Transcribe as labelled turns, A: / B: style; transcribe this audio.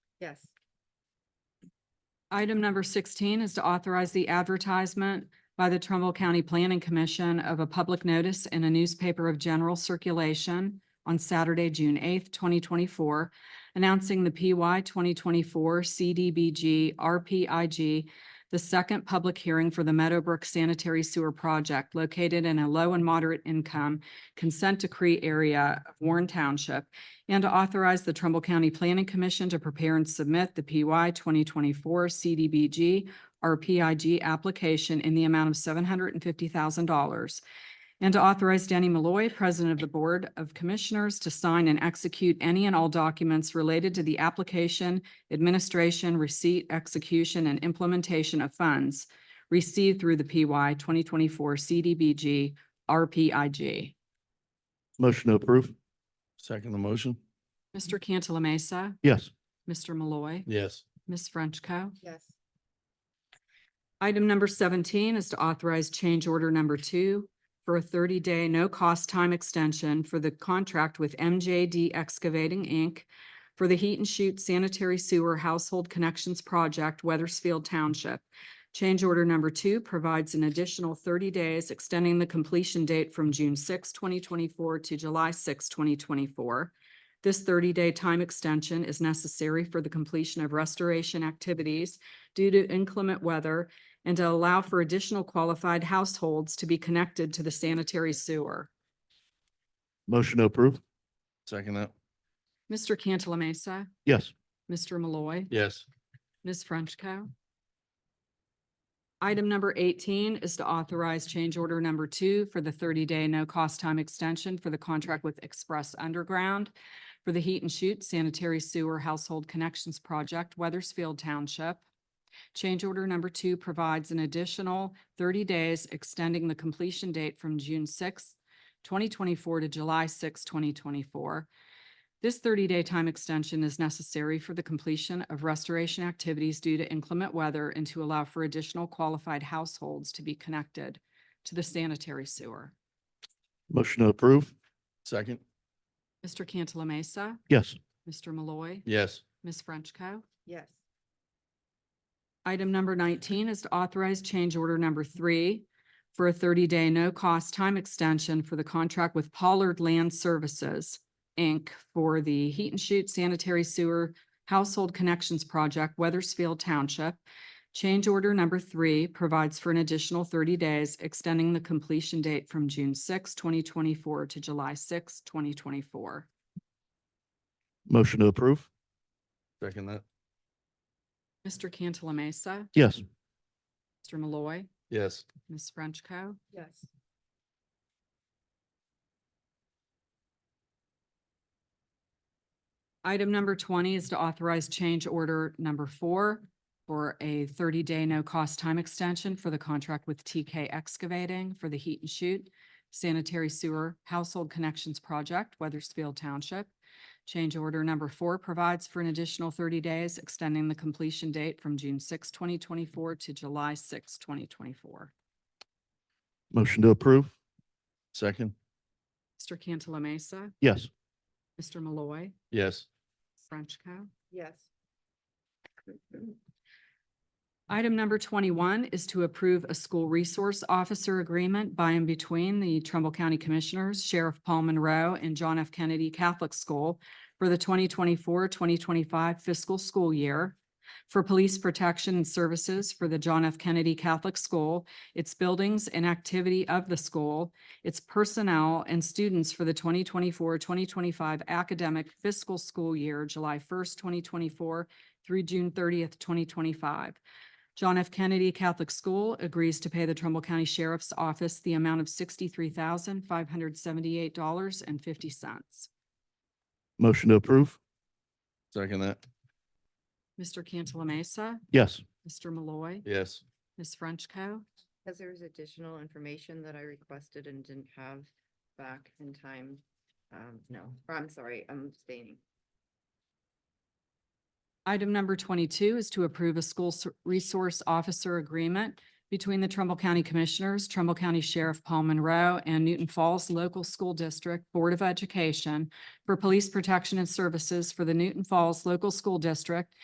A: Yes.
B: Item number sixteen is to authorize the advertisement by the Trumbull County Planning Commission of a public notice in a newspaper of general circulation on Saturday, June eighth, twenty twenty-four, announcing the PY twenty twenty-four CDBG RPIG, the second public hearing for the Meadowbrook Sanitary Sewer Project located in a low and moderate income consent decree area of Warren Township and to authorize the Trumbull County Planning Commission to prepare and submit the PY twenty twenty-four CDBG RPIG application in the amount of seven hundred and fifty thousand dollars. And to authorize Danny Malloy, President of the Board of Commissioners, to sign and execute any and all documents related to the application, administration, receipt, execution, and implementation of funds received through the PY twenty twenty-four CDBG RPIG.
C: Motion to approve. Second the motion.
B: Mr. Cantala Mesa,
C: Yes.
B: Mr. Malloy.
C: Yes.
B: Ms. Frenchco.
A: Yes.
B: Item number seventeen is to authorize change order number two for a thirty-day no-cost time extension for the contract with MJD Excavating, Inc. for the Heat and Shoot Sanitary Sewer Household Connections Project, Weathersfield Township. Change order number two provides an additional thirty days, extending the completion date from June 6, twenty twenty-four to July 6, twenty twenty-four. This thirty-day time extension is necessary for the completion of restoration activities due to inclement weather and to allow for additional qualified households to be connected to the sanitary sewer.
C: Motion to approve. Second that.
B: Mr. Cantala Mesa,
C: Yes.
B: Mr. Malloy,
C: Yes.
B: Ms. Frenchco. Item number eighteen is to authorize change order number two for the thirty-day no-cost time extension for the contract with Express Underground for the Heat and Shoot Sanitary Sewer Household Connections Project, Weathersfield Township. Change order number two provides an additional thirty days extending the completion date from June sixth, twenty twenty-four to July sixth, twenty twenty-four. This thirty-day time extension is necessary for the completion of restoration activities due to inclement weather and to allow for additional qualified households to be connected to the sanitary sewer.
C: Motion to approve. Second.
B: Mr. Cantala Mesa,
C: Yes.
B: Mr. Malloy,
C: Yes.
B: Ms. Frenchco.
A: Yes.
B: Item number nineteen is to authorize change order number three for a thirty-day no-cost time extension for the contract with Pollard Land Services, Inc. for the Heat and Shoot Sanitary Sewer Household Connections Project, Weathersfield Township. Change order number three provides for an additional thirty days, extending the completion date from June 6, twenty twenty-four to July 6, twenty twenty-four.
C: Motion to approve. Second that.
B: Mr. Cantala Mesa,
C: Yes.
B: Mr. Malloy,
C: Yes.
B: Ms. Frenchco.
A: Yes.
B: Item number twenty is to authorize change order number four for a thirty-day no-cost time extension for the contract with TK Excavating for the Heat and Shoot Sanitary Sewer Household Connections Project, Weathersfield Township. Change order number four provides for an additional thirty days, extending the completion date from June 6, twenty twenty-four to July 6, twenty twenty-four.
C: Motion to approve. Second.
B: Mr. Cantala Mesa,
C: Yes.
B: Mr. Malloy,
C: Yes.
B: Frenchco.
A: Yes.
B: Item number twenty-one is to approve a school resource officer agreement by and between the Trumbull County Commissioners, Sheriff Paul Monroe, and John F. Kennedy Catholic School for the 2024-2025 fiscal school year for police protection and services for the John F. Kennedy Catholic School, its buildings and activity of the school, its personnel and students for the 2024-2025 academic fiscal school year, July first, twenty twenty-four through June thirtieth, twenty twenty-five. John F. Kennedy Catholic School agrees to pay the Trumbull County Sheriff's Office the amount of sixty-three thousand, five hundred seventy-eight dollars and fifty cents.
C: Motion to approve. Second that.
B: Mr. Cantala Mesa,
C: Yes.
B: Mr. Malloy,
C: Yes.
B: Ms. Frenchco.
A: Because there was additional information that I requested and didn't have back in time. Um, no, or I'm sorry, I'm abstaining.
B: Item number twenty-two is to approve a school s- resource officer agreement between the Trumbull County Commissioners, Trumbull County Sheriff Paul Monroe, and Newton Falls Local School District Board of Education for police protection and services for the Newton Falls Local School District